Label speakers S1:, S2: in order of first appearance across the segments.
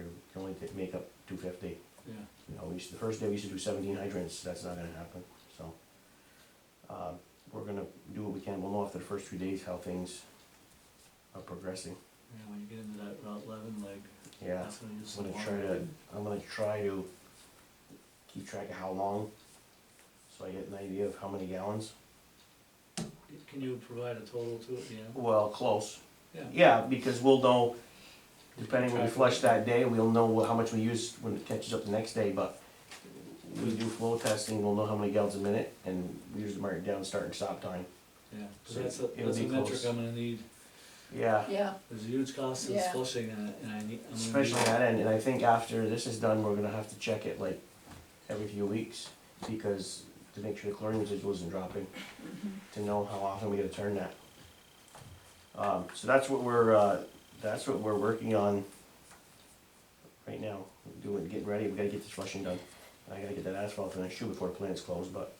S1: can only take, make up two fifty.
S2: yeah.
S1: You know, we used, the first day we used to do seventeen hydrants, that's not gonna happen, so. Uh, we're gonna do what we can, we'll know after the first two days how things are progressing,
S2: Yeah, when you get into that Route eleven, like,
S1: yeah.
S2: that's when you just.
S1: I'm gonna
S2: walk
S1: try to,
S2: in.
S1: I'm gonna try to keep track of how long, so I get an idea of how many gallons.
S2: Can you provide a total to it, yeah?
S1: Well, close.
S2: Yeah.
S1: Yeah, because we'll know, depending when we
S2: Track it.
S1: flush that day, we'll know how much we use when it catches up the next day, but we do flow testing, we'll know how many gallons a minute, and we usually mark down start and stop time.
S2: Yeah, 'cause
S1: So
S2: that's a,
S1: it'll
S2: that's a
S1: be
S2: metric
S1: close.
S2: I'm gonna need,
S1: Yeah,
S3: Yeah,
S2: there's a huge cost in
S3: Yeah.
S2: flushing and I, and I need. I'm gonna
S1: especially
S2: need-
S1: that end, and I think after this is done, we're gonna have to check it like every few weeks, because to make sure the chlorine residual isn't dropping, to know how often we gotta turn that. Um, so that's what we're, uh, that's what we're working on right now, doing, getting ready, we gotta get this flushing done. I gotta get that asphalt for next year before the plant's closed, but,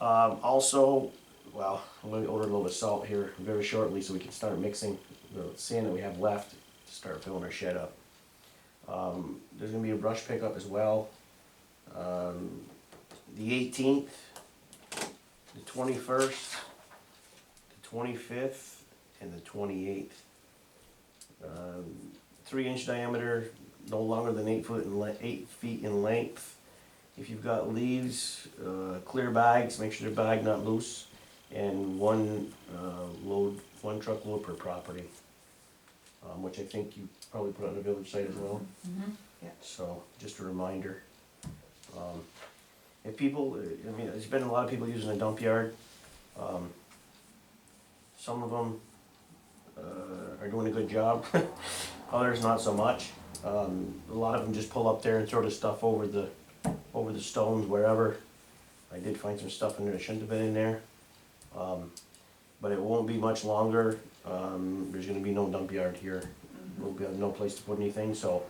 S1: um, also, well, I'm gonna order a little bit of salt here very shortly, so we can start mixing the sand that we have left, to start filling our shed up. Um, there's gonna be a brush pickup as well. Um, the eighteenth, the twenty-first, the twenty-fifth, and the twenty-eighth. Um, three inch diameter, no longer than eight foot in le- eight feet in length. If you've got leaves, uh, clear bags, make sure they're bagged, not loose, and one, uh, load, one truckload per property. Um, which I think you probably put on the village site as well.
S3: Mm-hmm.
S1: So, just a reminder. Um, If people, uh, I mean, there's been a lot of people using the dump yard. Um, Some of them uh, are doing a good job, others not so much. Um, A lot of them just pull up there and throw the stuff over the, over the stones, wherever. I did find some stuff in there that shouldn't have been in there. Um, But it won't be much longer. Um, There's gonna be no dump yard here. We'll be, no place to put anything, so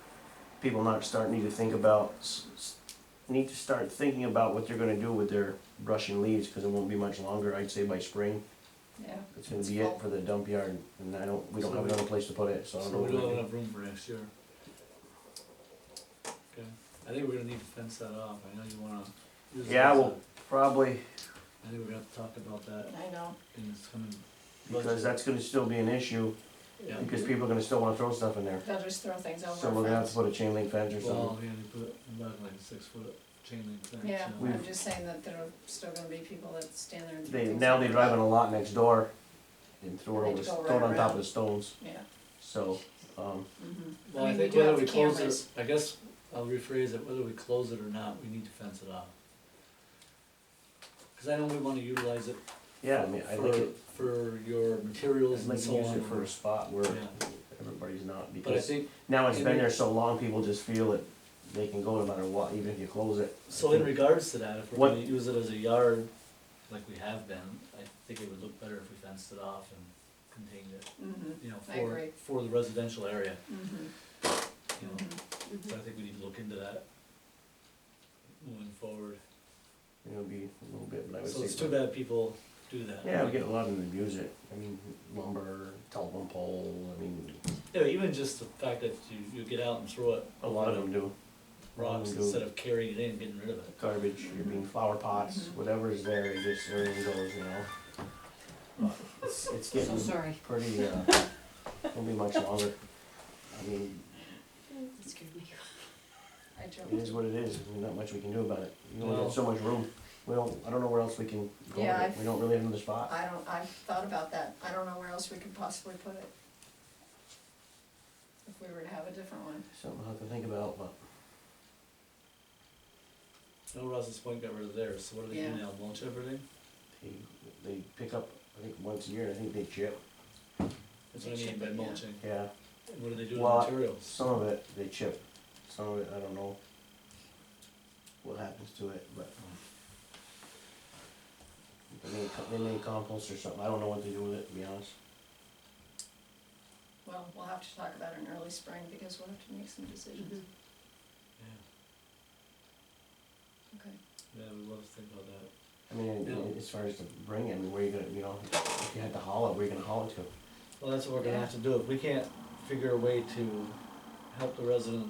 S1: people not start need to think about s- s- need to start thinking about what they're gonna do with their brush and leaves because it won't be much longer. I'd say by spring,
S3: yeah.
S1: it's gonna be it for the dump yard, and I don't we don't
S2: So
S1: have
S2: we-
S1: another place to put it, so I don't
S2: So
S1: know.
S2: we
S1: what we're
S2: don't have
S1: gonna do.
S2: enough room for next year. Okay, I think we're gonna need to fence that off, I know you wanna. use
S1: Yeah,
S2: that as
S1: well- Probably
S2: a- I think we're gonna have to talk about that
S3: I know.
S2: in this coming.
S1: because
S2: budget.
S1: that's gonna still be an issue
S2: Yeah.
S1: because people are gonna still want to throw stuff in there.
S3: They'll just throw things over.
S1: So we're gonna have to
S3: fence.
S1: put a chain link fence or something.
S2: Well, yeah, they put about like a six foot chain link fence.
S3: Yeah,
S2: you know.
S3: I'm
S1: We've-
S3: just saying that there are still gonna be people that stand there and. throw
S1: They
S3: things
S1: now they
S3: over.
S1: drive on a lot next door and throw it
S3: They
S1: over
S3: just go
S1: throw it
S3: right
S1: on top
S3: around.
S1: of the stones.
S3: Yeah,
S1: So um,
S3: mhm.
S2: Well,
S3: I
S2: I
S3: mean, we
S2: think
S3: do
S2: whether
S3: have
S2: we
S3: the
S2: close
S3: cameras.
S2: it, I guess, I'll rephrase it, whether we close it or not, we need to fence it off. Cause I know we wanna utilize it
S1: yeah, I mean I think
S2: for,
S1: it,
S2: for your
S1: I'd
S2: materials
S1: like
S2: and
S1: to
S2: so
S1: use it for a
S2: on.
S1: spot where
S2: Yeah,
S1: everybody's not because.
S2: but I think,
S1: Now it's
S2: In
S1: been
S2: re-
S1: there so long, people just feel that they can go no matter what, even if you close it. I
S2: so in
S1: think-
S2: regards to that, if we're
S1: What-
S2: gonna use it as a yard, like we have been, I think it would look better if we fenced it off and contained it,
S3: Mhm,
S2: you know,
S3: I
S2: for,
S3: agree.
S2: for the residential area,
S3: mhm,
S2: you know.
S3: mhm.
S2: So I think we need to look into that moving forward.
S1: It'll be a little bit, but I would say.
S2: So it's too bad people do that.
S1: Yeah, we get a lot of them abuse it. I mean, lumber, telephone pole, I mean,
S2: Yeah, even just the fact that you, you get out and throw it.
S1: a lot of them do.
S2: Rocks
S1: do.
S2: instead of carrying it in, getting rid of it.
S1: Garbage, I mean, flower pots,
S3: Mhm.
S2: Mm-hmm.
S1: whatever is there, it just, everything goes, you know? It's, it's
S4: So
S1: getting
S4: sorry.
S1: pretty, uh, won't be much longer. I mean,
S4: That scared me.
S3: I
S1: it is
S3: joked.
S1: what it is, I mean, not much we can do about it. You only
S2: No.
S1: got so much room. We don't, I don't know where else we can go
S3: Yeah,
S1: with it.
S3: I've-
S1: We don't really have another spot.
S3: I don't, I've thought about that. I don't know where else we could possibly put it. If we were to have a different one.
S1: Something I'll have to think about, but
S2: No, Rouse's Point got rid of theirs, so what do they do
S3: Yeah.
S2: now, mulch everything?
S1: they, they pick up, I think, once a year, and I think they chip.
S2: That's what I
S3: They
S2: mean
S3: chip
S2: by
S3: it, yeah.
S2: mulching.
S1: Yeah,
S2: And What do they do
S1: Well,
S2: with materials?
S1: some of it they chip, some of it, I don't know what happens to it, but. um, They may, co- they may compost or something, I don't know what they do with it, to be honest.
S3: Well, we'll have to talk about it in early spring because we'll have to make some decisions.
S2: Yeah,
S3: Okay.
S2: yeah, we love to think about that.
S1: I mean,
S2: Yeah.
S1: as far as to bring it, I mean, where you gonna, you know, if you had to haul it, where you gonna haul it to?
S2: Well, that's what we're gonna
S3: Yeah.
S2: have to do, if we can't figure a way to help the residents